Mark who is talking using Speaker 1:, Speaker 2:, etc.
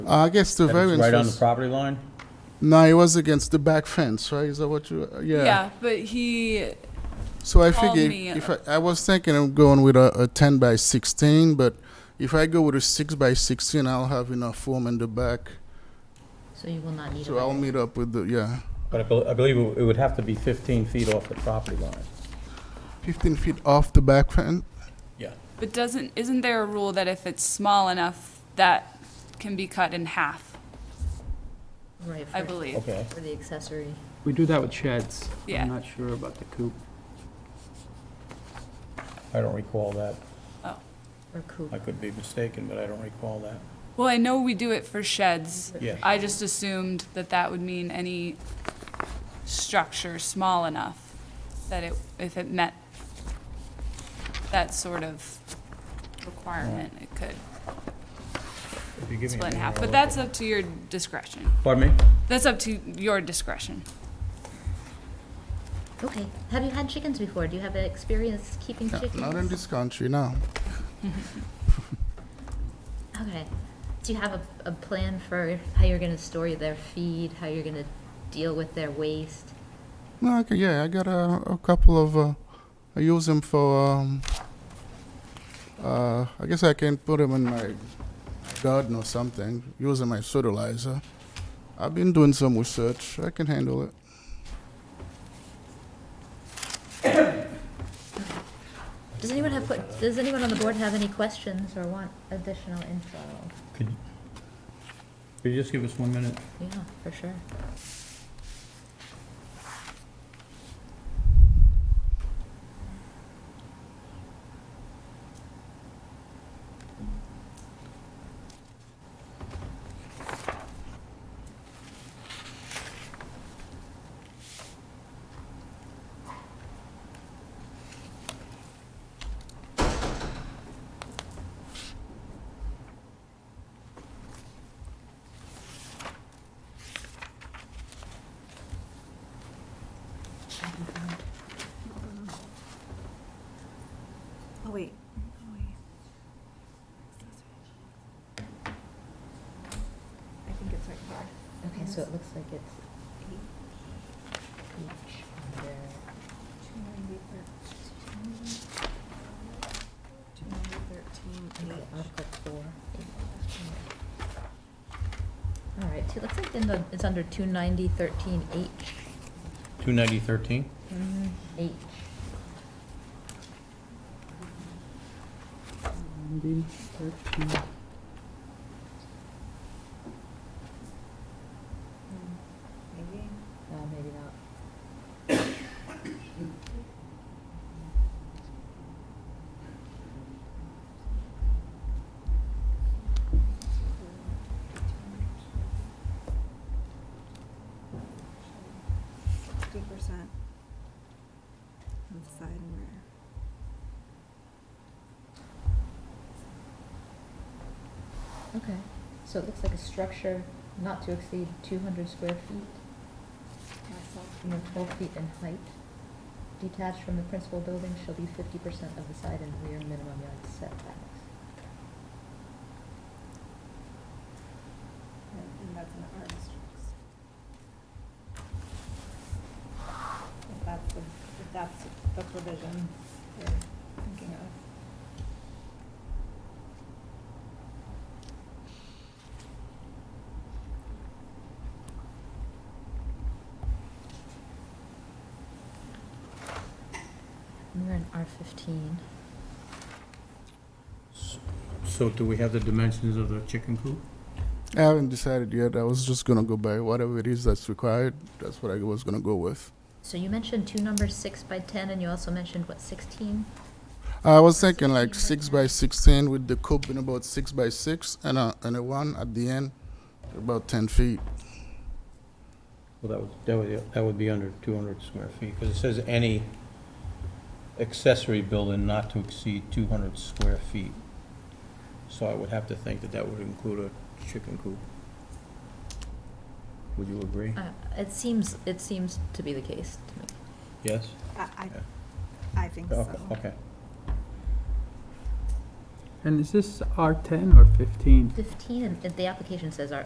Speaker 1: Uh, I guess the
Speaker 2: That it's
Speaker 1: variance
Speaker 2: Right on the
Speaker 1: was,
Speaker 2: property line?
Speaker 1: no, it was against the back fence, right? Is that what you, uh, yeah.
Speaker 3: Yeah, but he,
Speaker 1: So I
Speaker 3: Call
Speaker 1: figured,
Speaker 3: me. uh,
Speaker 1: if I, I was thinking of going with a, a ten by sixteen, but if I go with a six by sixteen, I'll have enough room in the back.
Speaker 4: So you will not need a
Speaker 1: So I'll
Speaker 4: variance.
Speaker 1: meet up with the, yeah,
Speaker 2: But I bel- I believe it would have to be 15 feet off the property line.
Speaker 1: fifteen feet off the back fence.
Speaker 2: Yeah.
Speaker 3: but doesn't, isn't there a rule that if it's small enough, that can be cut in half,
Speaker 4: Right,
Speaker 3: I
Speaker 4: for-
Speaker 3: believe?
Speaker 2: Okay.
Speaker 4: For the accessory.
Speaker 5: We do that with sheds.
Speaker 3: Yeah.
Speaker 5: I'm not sure about the coop.
Speaker 2: I don't recall that.
Speaker 4: Or coop.
Speaker 2: I could be mistaken, but I don't recall that.
Speaker 3: Well, I know we do it for sheds.
Speaker 2: Yeah.
Speaker 3: I just assumed that that would mean any structure small enough that it, if it met that sort of requirement, it could
Speaker 2: If you give me a
Speaker 3: split in
Speaker 2: minute,
Speaker 3: half.
Speaker 2: I'll
Speaker 3: But
Speaker 2: look
Speaker 3: that's up to your discretion.
Speaker 2: at- Pardon me?
Speaker 3: That's up to your discretion.
Speaker 4: Okay. Have you had chickens before? Do you have experience keeping
Speaker 1: Yeah,
Speaker 4: chickens?
Speaker 1: Not in this country, no.
Speaker 4: Okay. Do you have a, a plan for how you're gonna store their feed, how you're gonna deal with their waste?
Speaker 1: No, okay, yeah, I got a, a couple of. Uh, I use them for. Um, uh, I guess I can put them in my garden or something using my fertilizer. I've been doing some research. I can handle it.
Speaker 4: Does anyone have, que- does anyone on the board have any questions or want additional info?
Speaker 2: Could you- could you just give us one minute?
Speaker 4: Yeah, for sure.
Speaker 6: Oh, wait. I think it's right here.
Speaker 4: Okay, so it looks like it's each under,
Speaker 6: Two ninety thirteen. Two ninety thirteen
Speaker 4: okay,
Speaker 6: H.
Speaker 4: Article four. All right, so it looks like in the, it's under two ninety thirteen H.
Speaker 2: 29013?
Speaker 4: Mm-hmm. H.
Speaker 5: Maybe thirteen.
Speaker 6: Maybe.
Speaker 4: Uh, maybe not.
Speaker 6: Fifty percent of side and rear.
Speaker 4: Okay, so it looks like a structure not to exceed two hundred square feet, and then twelve feet in height. Detached from the principal building shall be fifty percent of the side and rear minimum yard setbacks.
Speaker 6: And and that's an R district. If that's, the- if that's the provision we're thinking of.
Speaker 4: And We're in R fifteen.
Speaker 2: So do we have the dimensions of the chicken coop?
Speaker 1: I haven't decided yet. I was just gonna go by whatever it is that's required. That's what I was gonna go with.
Speaker 4: So you mentioned two numbers, six by ten, and you also mentioned what, sixteen?
Speaker 1: I was thinking like six by sixteen with the coop in about six by six and a and a one at the end, about ten feet.
Speaker 2: Well, that would, that would, that would be under 200 square feet, because it says any accessory building not to exceed 200 square feet. So I would have to think that that would include a chicken coop. Would you agree?
Speaker 4: Uh, it seems, it seems to be the case to me.
Speaker 2: Yes?
Speaker 6: I,
Speaker 2: Yeah.
Speaker 6: I, I think so.
Speaker 2: Okay, okay.
Speaker 7: And is this R ten or fifteen?
Speaker 5: Fifteen, and the application says R